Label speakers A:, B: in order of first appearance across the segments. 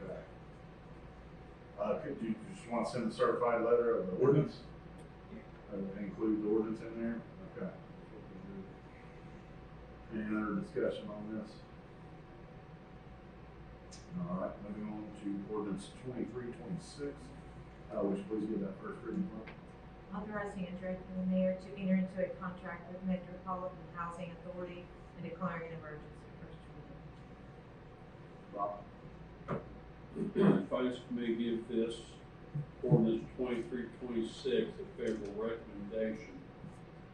A: Do Uh, you just want to send a certified letter of the ordinance? Uh, Include the ordinance in there? Okay. Any other discussion on this? All right, moving on to ordinance twenty-three, twenty-six. Uh, would you please give that first reading, clerk?
B: Authorizing and directing the mayor to enter into a contract with Metropolitan Housing Authority and declaring an emergency. First reading.
A: Rob?
C: If I just may give this ordinance twenty-three, twenty-six a favorable recommendation.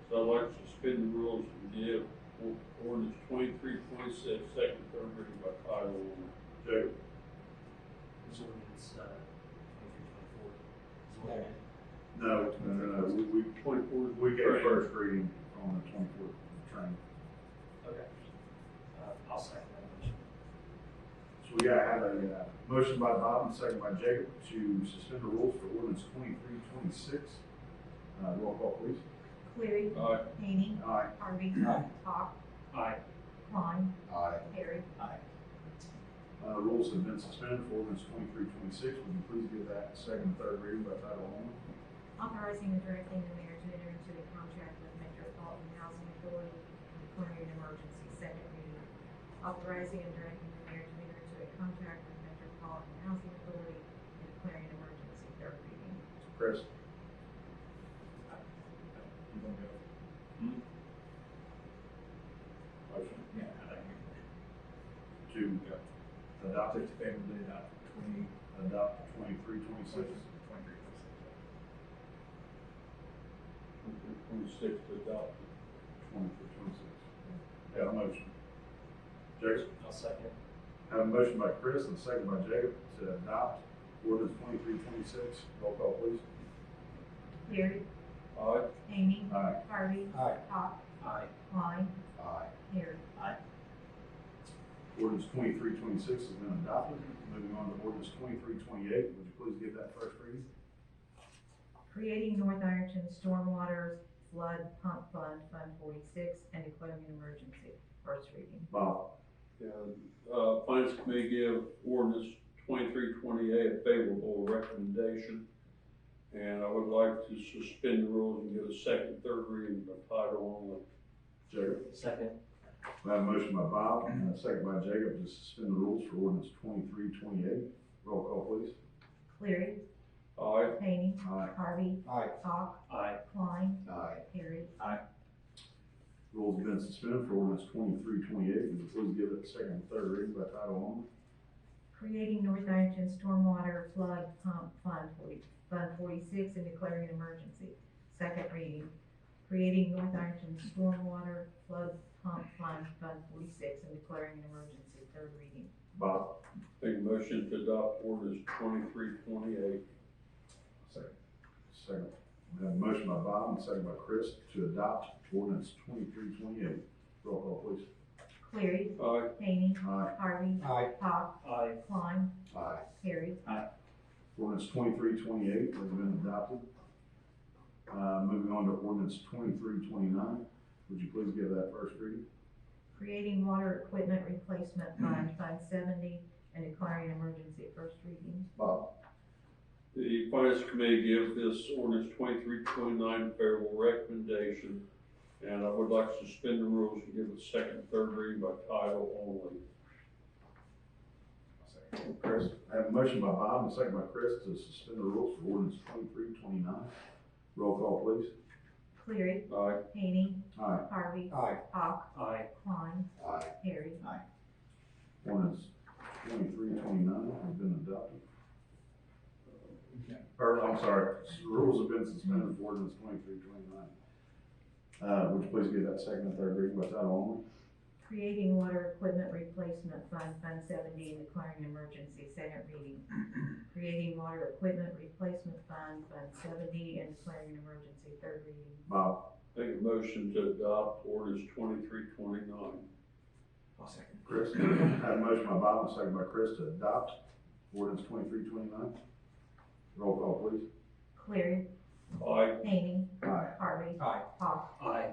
C: So I'd like to suspend the rules and give or- ordinance twenty-three, twenty-six, second, third reading by title only.
A: Jacob?
D: This ordinance, uh, twenty-three, twenty-four, is what it is.
A: No, no, no, no, we, we,
C: Twenty-four.
A: we gave
C: Right.
A: first reading on the twenty-fourth train.
D: Okay. Uh, I'll second that motion.
A: So we gotta have a, uh, motion by Bob and second by Jacob to suspend the rules for ordinance twenty-three, twenty-six. Uh, roll call please.
B: Cleary.
C: Aye.
B: Hany.
A: Aye.
B: Harvey.
A: Aye.
B: Hawk.
D: Aye.
B: Klein.
A: Aye.
B: Harry.
D: Aye.
A: Uh, rules have been suspended for ordinance twenty-three, twenty-six. Would you please give that second and third reading by title only?
B: Authorizing and directing the mayor to enter into a contract with Metropolitan Housing Authority and declaring an emergency. Second reading. Authorizing and directing the mayor to enter into a contract with Metropolitan Housing Authority and declaring an emergency. Third reading.
A: Chris?
C: Hmm?
A: Motion
E: Yeah, I think
A: to uh, adopt it,
E: it's favorably about twenty,
A: adopt twenty-three, twenty-six.
E: twenty-three percent.
C: Twenty-six to adopt.
A: Twenty-three, twenty-six. Got a motion. Jacob?
D: I'll second.
A: Have a motion by Chris and a second by Jacob to adopt ordinance twenty-three twenty-six. Roll call please.
B: Cleary.
C: Aye.
B: Hany.
A: Aye.
B: Harvey.
E: Aye.
B: Hawk.
D: Aye.
B: Klein.
A: Aye.
B: Harry.
A: Ordinance twenty-three twenty-six has been adopted. Moving on to ordinance twenty-three twenty-eight. Would you please give that first reading?
B: Creating North Ironton Stormwater Flood Pump Fund, Fund forty-six, and declaring an emergency. First reading.
A: Bob.
C: And, uh, Finance Committee give ordinance twenty-three, twenty-eight a favorable recommendation. And I would like to suspend the rules and give a second, third reading by title only.
A: Jacob.
D: Second.
A: I have a motion by Bob and a second by Jacob to suspend the rules for ordinance twenty-three twenty-eight. Roll call please.
B: Cleary.
C: Aye.
B: Hany.
A: Aye.
B: Harvey.
E: Aye.
B: Hawk.
D: Aye.
B: Klein.
E: Aye.
B: Harry.
A: Rules have been suspended for ordinance twenty-three twenty-eight. Would you please give it second and third reading by title only?
B: Creating North Ironton Stormwater Flood Pump Fund forty, Fund forty-six, and declaring an emergency. Second reading. Creating North Ironton Stormwater Flood Pump Fund, Fund forty-six, and declaring an emergency. Third reading.
A: Bob.
C: Make a motion to adopt ordinance twenty-three, twenty-eight.
A: Second. Second. We have a motion by Bob and second by Chris to adopt ordinance twenty-three twenty-eight. Roll call please.
B: Cleary.
C: Aye.
B: Hany.
A: Aye.
B: Harvey.
E: Aye.
B: Hawk.
D: Aye.
B: Klein.
A: Aye.
B: Harry.
A: Ordinance twenty-three twenty-eight has been adopted. Uh, moving on to ordinance twenty-three twenty-nine. Would you please give that first reading?
B: Creating Water Equipment Replacement Fund, Fund seventy, and declaring an emergency, first reading.
A: Bob.
C: The Finance Committee give this ordinance twenty-three, twenty-nine a favorable recommendation. And I would like to suspend the rules and give a second, third reading by title only.
A: Chris. I have a motion by Bob and second by Chris to suspend the rules for ordinance twenty-three twenty-nine. Roll call please.
B: Cleary.
C: Aye.
B: Hany.
A: Aye.
B: Harvey.
E: Aye.
B: Hawk.
D: Aye.
B: Klein.
A: Aye.
B: Harry.
A: Ordinance twenty-three twenty-nine has been adopted.
E: Okay.
A: Or, I'm sorry, the rules have been suspended for ordinance twenty-three twenty-nine. Uh, would you please give that second and third reading by title
B: Creating Water Equipment Replacement Fund, Fund seventy, and declaring an emergency, second reading. Creating Water Equipment Replacement Fund, Fund seventy, and declaring an emergency, third reading.
A: only? Bob?
C: Make a motion to adopt ordinance twenty-three, twenty-nine.
E: I'll second.
A: Chris? I have a motion by Bob and a second by Chris to adopt ordinance twenty-three twenty-nine. Roll call, please.
B: Cleary.
C: Aye.
B: Hany.
A: Aye.
B: Harvey.
E: Aye.
B: Hawk.
D: Aye.